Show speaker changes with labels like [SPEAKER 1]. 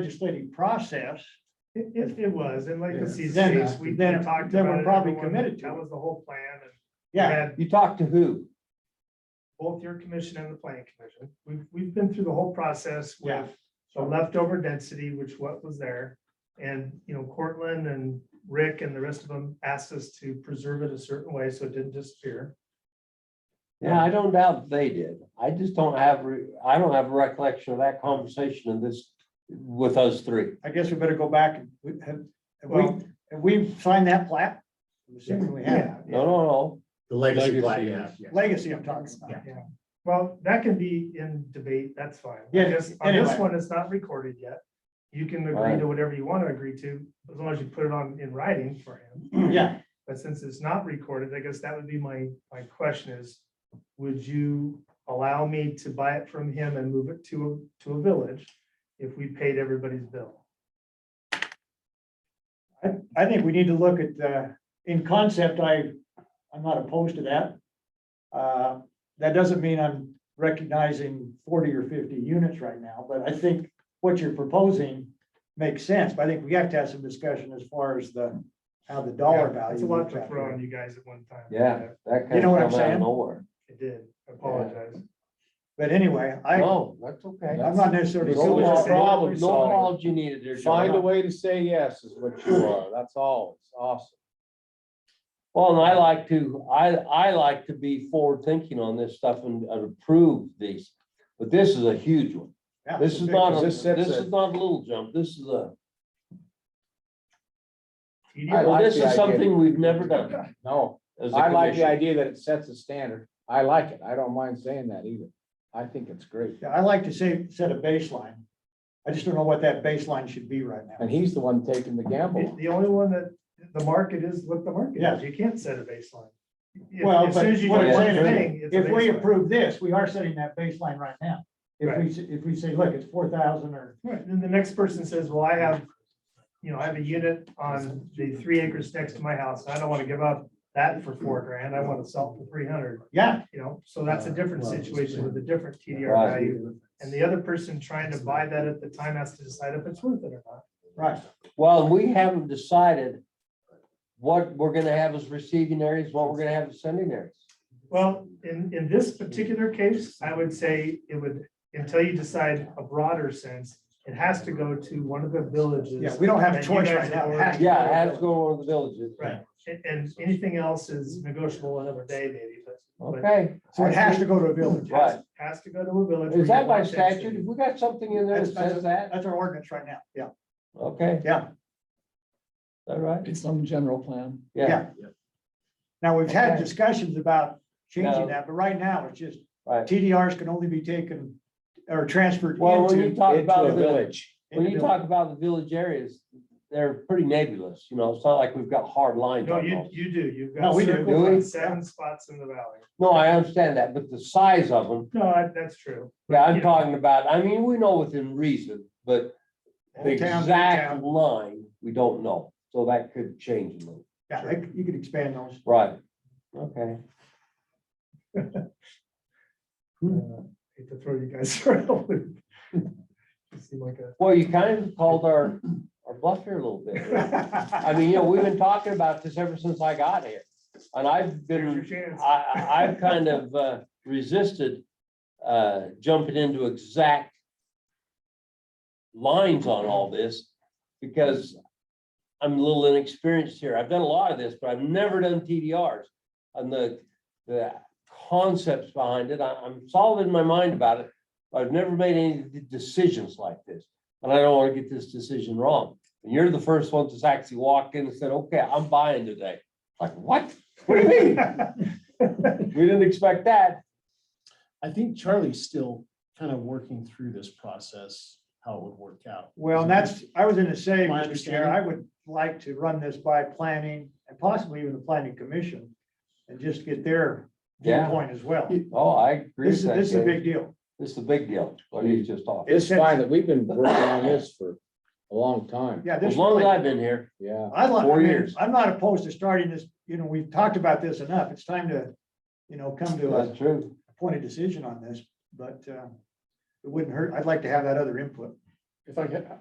[SPEAKER 1] legislative process,
[SPEAKER 2] It, it, it was, and like
[SPEAKER 3] Yeah.
[SPEAKER 2] the
[SPEAKER 1] Then,
[SPEAKER 2] season,
[SPEAKER 1] uh,
[SPEAKER 2] we we
[SPEAKER 1] then-
[SPEAKER 2] talked about it.
[SPEAKER 1] then we're probably
[SPEAKER 2] everyone-
[SPEAKER 1] committed to
[SPEAKER 2] That
[SPEAKER 1] it.
[SPEAKER 2] was the whole plan, and we
[SPEAKER 1] yeah,
[SPEAKER 2] had
[SPEAKER 3] You talk to who?
[SPEAKER 2] both your commission and the planning commission. We've, we've been through the whole process
[SPEAKER 1] yeah.
[SPEAKER 2] with the leftover density, which what was there. And, you know, Cortland and Rick and the rest of them asked us to preserve it a certain way so it didn't disappear.
[SPEAKER 3] Yeah, I don't doubt they did. I just don't have, re- I don't have a recollection of that conversation in this, with us three.
[SPEAKER 1] I guess we better go back and we have, have we,
[SPEAKER 2] Well-
[SPEAKER 1] have we signed that plat? I'm assuming we have.
[SPEAKER 3] No, no, no.
[SPEAKER 4] The legacy plat,
[SPEAKER 3] Legacy,
[SPEAKER 4] yeah.
[SPEAKER 1] Legacy I'm talking about.
[SPEAKER 2] Yeah. Well, that can be in debate, that's fine. I
[SPEAKER 1] Yeah,
[SPEAKER 2] guess On this
[SPEAKER 1] anyway.
[SPEAKER 2] one, it's not recorded yet. You can agree
[SPEAKER 3] Right.
[SPEAKER 2] to whatever you want to agree to, as long as you put it on in writing for him.
[SPEAKER 1] Yeah,
[SPEAKER 2] But since it's not recorded, I guess that would be my, my question is, would you allow me to buy it from him and move it to, a- to a village if we paid everybody's bill?
[SPEAKER 1] I think we need to look at, uh, in concept, I, I'm not opposed to that. Uh, that doesn't mean I'm recognizing forty or fifty units right now, but I think what you're proposing makes sense, but I think we have to have some discussion as far as the, how the dollar
[SPEAKER 2] Yeah,
[SPEAKER 1] value.
[SPEAKER 2] It's a lot
[SPEAKER 1] works
[SPEAKER 2] to
[SPEAKER 1] out
[SPEAKER 2] throw
[SPEAKER 1] here.
[SPEAKER 2] on you guys at one time.
[SPEAKER 3] Yeah, that
[SPEAKER 1] You
[SPEAKER 3] kind
[SPEAKER 1] know what I'm
[SPEAKER 3] of come out
[SPEAKER 1] saying?
[SPEAKER 3] of nowhere.
[SPEAKER 2] It did, I apologize.
[SPEAKER 1] But anyway, I,
[SPEAKER 3] No, that's okay.
[SPEAKER 1] I'm not necessarily.
[SPEAKER 3] No
[SPEAKER 2] what
[SPEAKER 3] apol-
[SPEAKER 2] you're saying.
[SPEAKER 3] No apology needed there,
[SPEAKER 5] Find a
[SPEAKER 3] John.
[SPEAKER 5] way to say yes is what you are. That's all. It's awesome.
[SPEAKER 3] Well, and I like to, I, I like to be forward thinking on this stuff and and approve these. But this is a huge one.
[SPEAKER 1] Yeah,
[SPEAKER 3] This
[SPEAKER 1] it's
[SPEAKER 3] is
[SPEAKER 1] a big-
[SPEAKER 3] not, a-
[SPEAKER 5] this
[SPEAKER 3] this
[SPEAKER 5] sets
[SPEAKER 3] is
[SPEAKER 5] a-
[SPEAKER 3] not a little jump. This is a,
[SPEAKER 2] You
[SPEAKER 5] I
[SPEAKER 2] do-
[SPEAKER 3] well,
[SPEAKER 5] like
[SPEAKER 3] this
[SPEAKER 5] the
[SPEAKER 3] is
[SPEAKER 5] idea.
[SPEAKER 3] something we've never done
[SPEAKER 5] No,
[SPEAKER 3] as a
[SPEAKER 5] I like the
[SPEAKER 3] commission.
[SPEAKER 5] idea that it sets a standard. I like it. I don't mind saying that either. I think it's great.
[SPEAKER 1] Yeah, I like to say, set a baseline. I just don't know what that baseline should be right now.
[SPEAKER 5] And he's the one taking the gamble.
[SPEAKER 2] The
[SPEAKER 5] on it.
[SPEAKER 2] the only one that, the market is what the market
[SPEAKER 1] Yeah.
[SPEAKER 2] is, you can't set a baseline. If-
[SPEAKER 1] Well,
[SPEAKER 2] As
[SPEAKER 1] but
[SPEAKER 2] soon as you do
[SPEAKER 1] what
[SPEAKER 3] I'm
[SPEAKER 2] one
[SPEAKER 1] saying is,
[SPEAKER 2] thing, it's a
[SPEAKER 1] If we
[SPEAKER 2] baseline.
[SPEAKER 1] approve this, we are setting that baseline right now. If we,
[SPEAKER 2] Right.
[SPEAKER 1] s- if we say, look, it's four thousand or,
[SPEAKER 2] Right, then the next person says, well, I have, you know, I have a unit on the three acres next to my house, and I don't wanna give up that for four grand, I wanna sell it for three hundred,
[SPEAKER 1] yeah,
[SPEAKER 2] you know, so that's a different situation with a different TDR
[SPEAKER 3] Right.
[SPEAKER 2] value. And the other person trying to buy that at the time has to decide if it's worth it or not.
[SPEAKER 1] right,
[SPEAKER 3] Well, we haven't decided what we're gonna have as receiving areas, what we're gonna have as sending areas.
[SPEAKER 2] Well, in, in this particular case, I would say it would, until you decide a broader sense, it has to go to one of the villages.
[SPEAKER 1] yeah, we don't have a
[SPEAKER 2] that you
[SPEAKER 1] choice right
[SPEAKER 2] guys
[SPEAKER 1] now.
[SPEAKER 2] have
[SPEAKER 1] It has to
[SPEAKER 3] Yeah,
[SPEAKER 1] go
[SPEAKER 3] it
[SPEAKER 1] to
[SPEAKER 3] has
[SPEAKER 1] the
[SPEAKER 3] to go over the villages.
[SPEAKER 2] Right, and, and anything else is negotiable another day maybe, but. but
[SPEAKER 3] Okay,
[SPEAKER 1] village. So it has to go to a village.
[SPEAKER 3] Right.
[SPEAKER 2] has- Has to go to a village.
[SPEAKER 3] is that
[SPEAKER 2] where
[SPEAKER 3] by
[SPEAKER 2] you want
[SPEAKER 3] statute? Have
[SPEAKER 2] density.
[SPEAKER 3] we got something in there that says that?
[SPEAKER 1] That's our ordinance right now, yeah,
[SPEAKER 3] Okay, is
[SPEAKER 1] yeah,
[SPEAKER 3] that right?
[SPEAKER 6] It's some general plan.
[SPEAKER 3] Yeah,
[SPEAKER 1] yeah. Now, we've had
[SPEAKER 3] Okay.
[SPEAKER 1] discussions about
[SPEAKER 3] No.
[SPEAKER 1] changing that, but right now, it's just
[SPEAKER 3] right.
[SPEAKER 1] TDRs can only be taken or transferred
[SPEAKER 3] Well, when you
[SPEAKER 1] into.
[SPEAKER 3] talk
[SPEAKER 5] Into
[SPEAKER 3] about
[SPEAKER 5] a
[SPEAKER 3] the village,
[SPEAKER 5] village.
[SPEAKER 3] when you talk about the village areas, they're pretty nebulous, you know, it's not like we've got hard lines
[SPEAKER 2] No,
[SPEAKER 3] on
[SPEAKER 2] you,
[SPEAKER 3] those.
[SPEAKER 2] you do, you've
[SPEAKER 1] No,
[SPEAKER 2] got
[SPEAKER 1] we do.
[SPEAKER 2] circles
[SPEAKER 3] Do we?
[SPEAKER 2] and seven spots in the valley.
[SPEAKER 3] No, I understand that, but the size of them,
[SPEAKER 2] No, I- that's true.
[SPEAKER 3] yeah, I'm
[SPEAKER 2] Yeah.
[SPEAKER 3] talking about, I mean, we know within reason, but the
[SPEAKER 1] Old town, new
[SPEAKER 3] exact
[SPEAKER 1] town.
[SPEAKER 3] line, we don't know, so that could change a little.
[SPEAKER 1] Yeah, like, you could expand those.
[SPEAKER 3] Right, okay. Hmm.
[SPEAKER 2] Uh, Hate to throw you guys around. You seem like a,
[SPEAKER 3] Well, you kind of called our, our bluff here a little bit. I mean, you know, we've been talking about this ever since I got here, and I've
[SPEAKER 2] here's your
[SPEAKER 3] been,
[SPEAKER 2] chance.
[SPEAKER 3] I, I- I've kind of uh, resisted uh, jumping into exact lines on all this, because I'm a little inexperienced here. I've done a lot of this, but I've never done TDRs. And the, the concepts behind it, I, I'm solid in my mind about it, but I've never made any d- decisions like this. And I don't want to get this decision wrong. And you're the first one to actually walk in and said, okay, I'm buying today. Like, what? What do you mean? We didn't expect that.
[SPEAKER 4] I think Charlie's still kind of working through this process, how it would work out.
[SPEAKER 1] Well, and that's, I was gonna say,
[SPEAKER 4] My
[SPEAKER 1] Mr. Chair,
[SPEAKER 4] understanding.
[SPEAKER 1] I would like to run this by planning and possibly even the planning commission and just get their
[SPEAKER 3] Yeah.
[SPEAKER 1] viewpoint as well.
[SPEAKER 3] Oh, I agree.
[SPEAKER 1] This is,
[SPEAKER 3] with that,
[SPEAKER 1] this is a
[SPEAKER 3] Dave.
[SPEAKER 1] big deal.
[SPEAKER 3] This is a big deal, what he's just talking.
[SPEAKER 5] It's fine that we've been working on this for a long time.
[SPEAKER 1] Yeah, this
[SPEAKER 3] As long
[SPEAKER 1] really,
[SPEAKER 3] as I've been here,
[SPEAKER 5] Yeah.
[SPEAKER 1] I like, I
[SPEAKER 3] four
[SPEAKER 1] mean,
[SPEAKER 3] years.
[SPEAKER 1] I'm not opposed to starting this, you know, we've talked about this enough. It's time to, you know, come to a
[SPEAKER 3] that's true.
[SPEAKER 1] point of decision on this, but uh, it wouldn't hurt. I'd like to have that other input.
[SPEAKER 4] If I could,